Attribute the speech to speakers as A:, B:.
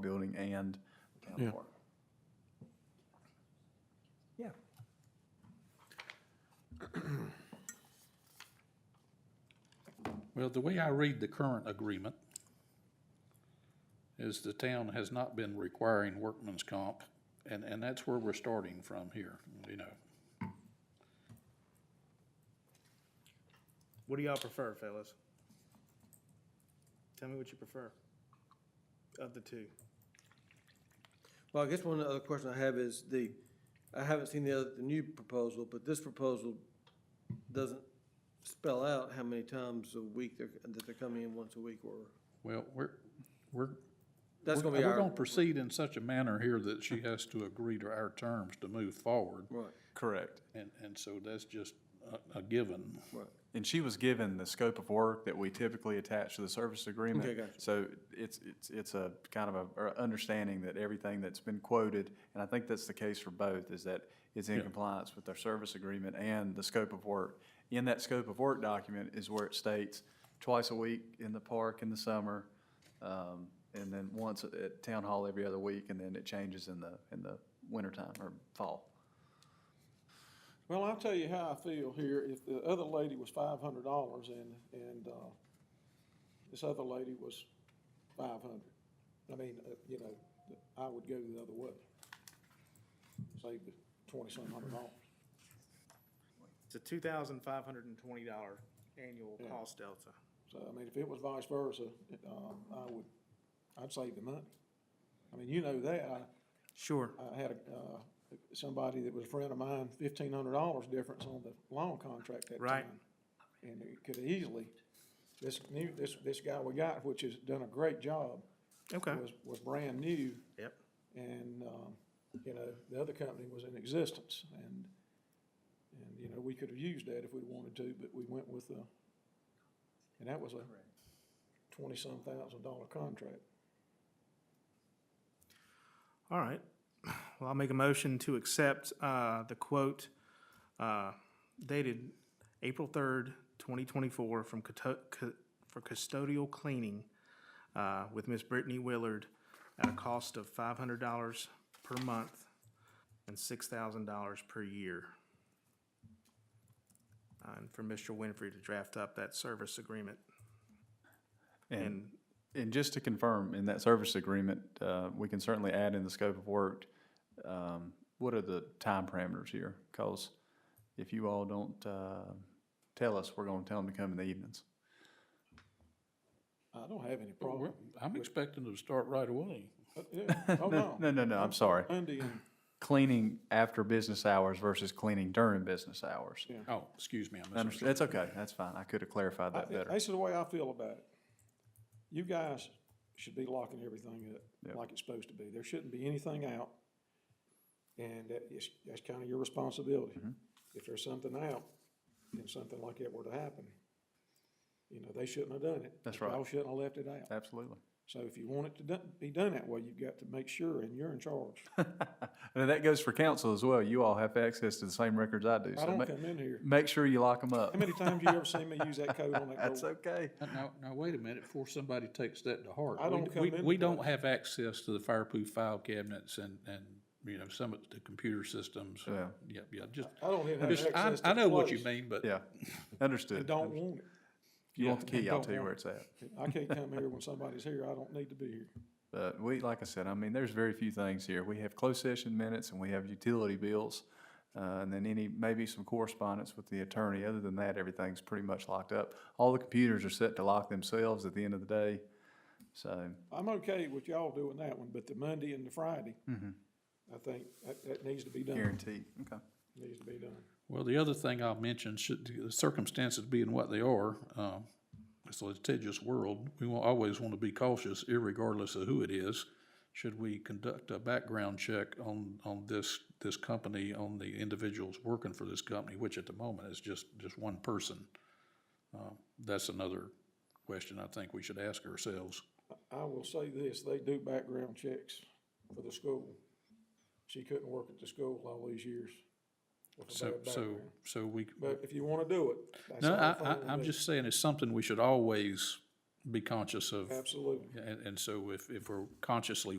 A: building and town
B: Yeah.
A: park.
C: Yeah.
B: Well, the way I read the current agreement is the town has not been requiring workman's comp, and, and that's where we're starting from here, you know.
D: What do y'all prefer, fellas? Tell me what you prefer of the two.
C: Well, I guess one other question I have is the, I haven't seen the other, the new proposal, but this proposal doesn't spell out how many times a week they're, that they're coming in once a week or,
B: Well, we're, we're.
C: that's
B: we're-
C: gonna be
B: We're gonna
C: our,
B: proceed in such a manner here that she has to agree to our terms to move forward,
C: right,
A: Correct.
B: and, and so that's just a, a given.
C: right.
A: And she was given the scope of work that we typically attach to the service agreement.
C: Okay, gotcha.
A: So it's, it's, it's a kind of a, or understanding that everything that's been quoted, and I think that's the case for both, is that it's in compliance with our service agreement and the scope of work. In that scope of work document is where it states twice a week in the park in the summer, um, and then once at- at town hall every other week, and then it changes in the, in the wintertime or fall.
E: Well, I'll tell you how I feel here. If the other lady was five hundred dollars and, and, uh, this other lady was five hundred, I mean, uh, you know, I would go the other way. Save the twenty-some hundred dollars.
D: It's a two thousand five hundred and twenty dollar annual cost delta.
E: So, I mean, if it was vice versa, it, um, I would, I'd save the money. I mean, you know that. I,
D: Sure.
E: I had, a, uh, somebody that was a friend of mine, fifteen hundred dollars difference on the loan contract that
D: Right.
E: time. And it could easily, this new, this, this guy we got, which has done a great job,
D: Okay.
E: was, was brand new.
D: Yep.
E: And, um, you know, the other company was in existence and, and, you know, we could have used that if we wanted to, but we went with, uh, and that was a twenty-some thousand dollar contract.
D: All right. Well, I'll make a motion to accept, uh, the quote, uh, dated April third, twenty twenty-four from Cato- Ca- for custodial cleaning, uh, with Miss Brittany Willard at a cost of five hundred dollars per month and six thousand dollars per year. Uh, And for Mr. Winfrey to draft up that service agreement
A: And
D: and
A: Mm-hmm. And just to confirm, in that service agreement, uh, we can certainly add in the scope of work, um, what are the time parameters here? Because if you all don't uh, tell us, we're going to tell them to come in the evenings.
E: I don't have any
B: But
E: problem.
B: we're- I'm expecting them to start right away.
E: Uh, yeah.
A: No,
E: Oh, no.
A: no, no, no, I'm sorry.
E: Monday and
A: Cleaning after business hours versus cleaning during business hours.
E: Yeah.
B: Oh, excuse me,
A: I
B: I misunderstood.
A: understand. That's okay, that's fine. I could have clarified that
E: I-
A: better.
E: This is the way I feel about it. You guys should be locking everything
A: Yep.
E: up like it's supposed to be. There shouldn't be anything out. And that is, that's kind of your responsibility.
A: Mm-hmm.
E: If there's something out and something like that were to happen, you know, they shouldn't have done it.
A: That's
E: Y'all
A: right.
E: shouldn't have left it out.
A: Absolutely.
E: So if you want it to done- be done that way, you've got to make sure, and you're in charge.
A: And that goes for council as well. You all have access to the same records I do.
E: I
A: So
E: don't
A: ma-
E: come in here.
A: make sure you lock them up.
E: How many times you ever seen me use that code on that
A: That's
E: door?
A: okay.
B: Now, now, wait a minute, before somebody takes that to heart.
E: I
B: We-
E: don't come
B: we-
E: into
B: We don't
E: that.
B: have access to the fireproof file cabinets and, and, you know, some of the computer systems.
A: Yeah.
B: Yeah, yeah, just,
E: I don't even have
B: just,
E: access
B: I,
E: to
B: I
E: the
B: know what you
E: place.
B: mean, but.
A: Yeah, understood.
E: I don't want it.
A: If you want the
B: Yeah,
A: key, I'll
B: don't
A: tell you
B: want
A: where it's at.
E: I can't come here when somebody's here. I don't need to be here.
A: But we, like I said, I mean, there's very few things here. We have closed session minutes and we have utility bills. Uh, and then any, maybe some correspondence with the attorney. Other than that, everything's pretty much locked up. All the computers are set to lock themselves at the end of the day. So,
E: I'm okay with y'all doing that one, but the Monday and the Friday,
B: Mm-hmm.
E: I think that, that needs to be done.
A: guaranteed. Okay.
E: Needs to be done.
B: Well, the other thing I'll mention, should the circumstances being what they are, um, it's a litigious world, we will always want to be cautious irregardless of who it is. Should we conduct a background check on, on this, this company, on the individuals working for this company, which at the moment is just, just one person? Uh, That's another question I think we should ask ourselves.
E: I will say this, they do background checks for the school. She couldn't work at the school all these years. with a
B: So,
E: bad
B: so,
E: background.
B: so we,
E: But if you wanna do it, that's
B: no,
E: all
B: I,
E: fine with
B: I, I'm
E: me.
B: just saying it's something we should always be conscious of.
E: Absolutely.
B: And, and so if, if we're consciously